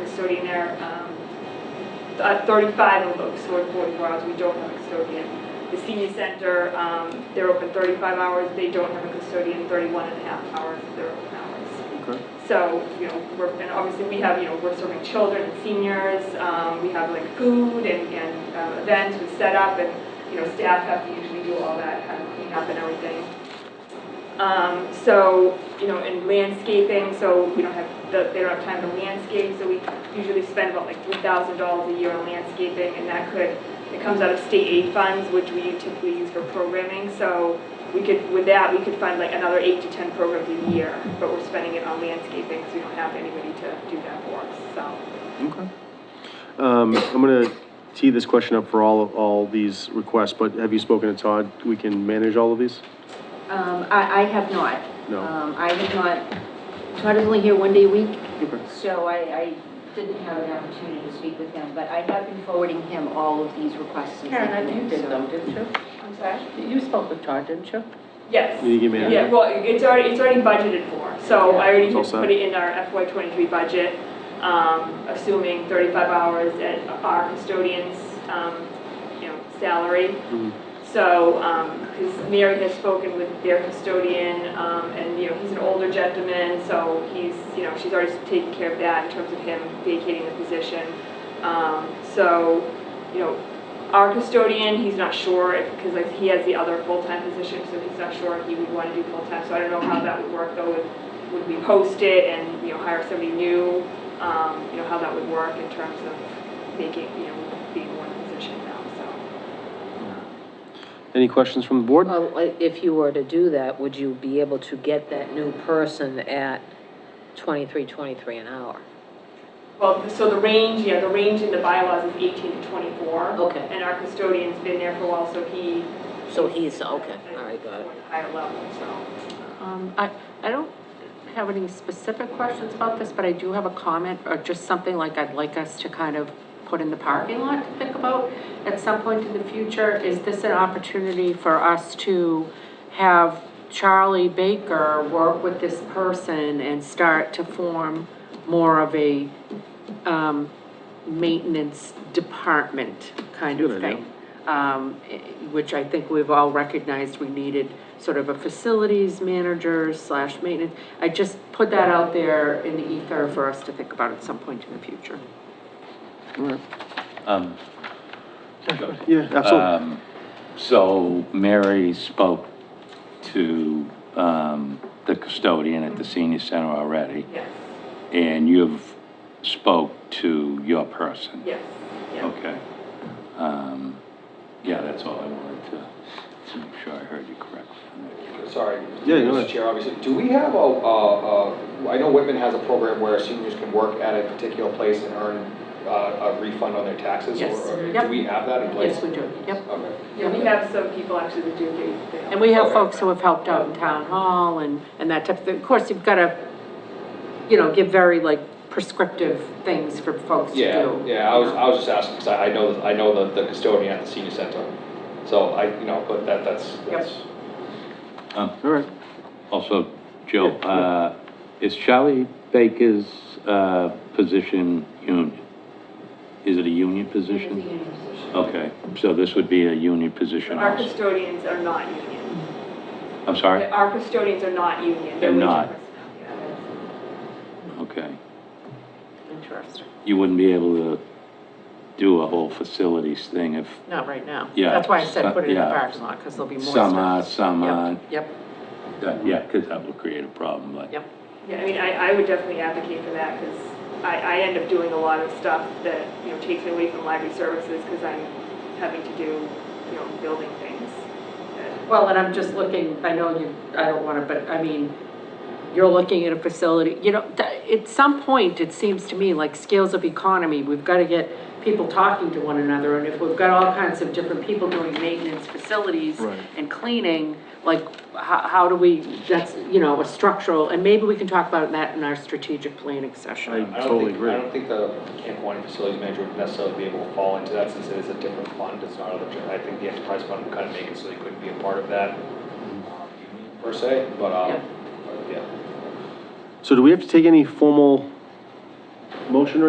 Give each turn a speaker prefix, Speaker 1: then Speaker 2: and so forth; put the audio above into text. Speaker 1: custodian there. Um, uh, 35 of them so in 44 hours, we don't have a custodian. The senior center, um, they're open 35 hours, they don't have a custodian, 31 and a half hours, they're open hours.
Speaker 2: Okay.
Speaker 1: So, you know, we're, and obviously we have, you know, we're serving children and seniors, um, we have like food and, and uh, events, we set up and, you know, staff have to usually do all that, kind of clean up and everything. Um, so, you know, in landscaping, so we don't have, the- they don't have time to landscape, so we usually spend about like three thousand dollars a year on landscaping, and that could, it comes out of state aid funds, which we typically use for programming, so we could, with that, we could find like another eight to ten programs a year, but we're spending it on landscaping, because we don't have anybody to do that for us, so.
Speaker 2: Okay. Um, I'm gonna tee this question up for all, all these requests, but have you spoken to Todd? We can manage all of these?
Speaker 3: Um, I, I have not.
Speaker 2: No.
Speaker 3: Um, I have not, Todd is only here one day a week,
Speaker 2: Okay.
Speaker 3: so I, I didn't have an opportunity to speak with him, but I have been forwarding him all of these requests. and
Speaker 4: Karen, I- you
Speaker 3: documents,
Speaker 4: did
Speaker 3: so-
Speaker 4: them, didn't you?
Speaker 1: I'm sorry?
Speaker 4: You spoke with Todd, didn't you?
Speaker 1: Yes.
Speaker 2: You can manage.
Speaker 1: Yeah, well, it's already, it's already budgeted for, so I already
Speaker 2: It's all
Speaker 1: just put
Speaker 2: set.
Speaker 1: it in our FY twenty-three budget, um, assuming thirty-five hours at our custodian's, um, you know, salary.
Speaker 2: Mhm.
Speaker 1: So, um 'cause because Mary has spoken with their custodian, um, and, you know, he's an older gentleman, so he's, you know, she's already taken care of that in terms of him vacating the position. Um, so, you know, our custodian, he's not sure if, because like he has the other full-time position, so he's not sure if he would want to do full-time. So I don't know how that would work though, would, would we post it and, you know, hire somebody new? Um, you know, how that would work in terms of making, you know, being one position now, so.
Speaker 2: Any questions from the board?
Speaker 5: Well, i- if you were to do that, would you be able to get that new person at twenty-three, twenty-three an hour?
Speaker 1: Well, so the range, yeah, the range in the bylaws is eighteen to twenty-four.
Speaker 5: Okay.
Speaker 1: And our custodian's been there for a while, so he.
Speaker 5: So he's, okay, all right, got it.
Speaker 1: Higher level, so.
Speaker 4: Um, I, I don't have any specific questions about this, but I do have a comment or just something like I'd like us to kind of put in the parking lot to think about at some point in the future. Is this an opportunity for us to have Charlie Baker work with this person and start to form more of a, um, maintenance department kind
Speaker 2: Good
Speaker 4: of
Speaker 2: idea.
Speaker 4: thing? um, eh, which I think we've all recognized we needed sort of a facilities manager slash maintenance. I just put that out there in the ether for us to think about at some point in the future.
Speaker 6: Um,
Speaker 2: Yeah, absolutely.
Speaker 6: um, So Mary spoke to um, the custodian at the senior center already,
Speaker 1: Yes,
Speaker 6: and you've spoke to your person?
Speaker 1: yes, yeah.
Speaker 6: Okay. Um, Yeah, that's all I wanted to, to make sure I heard you correctly.
Speaker 7: Sorry.
Speaker 2: Yeah, go ahead.
Speaker 7: Mr. Chair, obviously, do we have a, a- a- I know Whitman has a program where seniors can work at a particular place and earn uh, a refund on their taxes? or-
Speaker 4: Yes.
Speaker 7: or
Speaker 4: Yep.
Speaker 7: Do we have that in place?
Speaker 4: Yes, we do, yep.
Speaker 7: Okay.
Speaker 1: Yeah, we have some people actually that do, they, they.
Speaker 4: And we have folks who have helped out in town hall and, and that type of thing. Of course, you've gotta, you know, give very like prescriptive things for folks to do.
Speaker 7: Yeah, yeah, I was, I was just asking, because I I know, I know the- the custodian at the senior center, so I, you know, but that, that's, that's.
Speaker 2: All right.
Speaker 6: Um, Also, Joe, uh, is Charlie Baker's uh, position union? Is it a union
Speaker 3: It's a
Speaker 6: position?
Speaker 3: union position.
Speaker 6: Okay, so this would be a union position
Speaker 1: Our
Speaker 6: also?
Speaker 1: custodians are not union.
Speaker 6: I'm sorry?
Speaker 1: Our custodians are not union.
Speaker 6: They're not.
Speaker 1: wage personnel, yeah.
Speaker 6: Okay.
Speaker 4: Interesting.
Speaker 6: You wouldn't be able to do a whole facilities thing if
Speaker 4: Not right now.
Speaker 6: Yeah,
Speaker 4: That's why I said put it in the
Speaker 6: yeah.
Speaker 4: parking lot, because there'll be more.
Speaker 6: some
Speaker 4: stuff.
Speaker 6: uh, are, some
Speaker 4: Yep,
Speaker 6: aren't.
Speaker 4: Yep,
Speaker 6: That- Yeah, because that would create a problem, but.
Speaker 4: yep.
Speaker 1: Yeah, I mean, I, I would definitely advocate for that, because I, I end up doing a lot of stuff that, you know, takes me away from library services, because I'm having to do, you know, building things. that-
Speaker 4: Well, and I'm just looking, I know you, I don't wanna, but I mean, you're looking at a facility, you know, th- at some point, it seems to me, like scales of economy, we've gotta get people talking to one another, and if we've got all kinds of different people doing maintenance facilities
Speaker 2: Right.
Speaker 4: and cleaning, like, how, how do we, that's, you know, a structural, and maybe we can talk about that in our strategic planning session.
Speaker 2: I
Speaker 7: I don't
Speaker 2: totally
Speaker 7: think-
Speaker 2: agree.
Speaker 7: I don't think the Camp Quaney Facilities Manager would necessarily be able to fall into that since it is a different fund, it's not, a- I think the enterprise fund would kind of make it so they couldn't be a part of that
Speaker 2: Mm-hmm.
Speaker 7: per se, but,
Speaker 4: Yeah.
Speaker 7: um, yeah.
Speaker 2: So do we have to take any formal motion or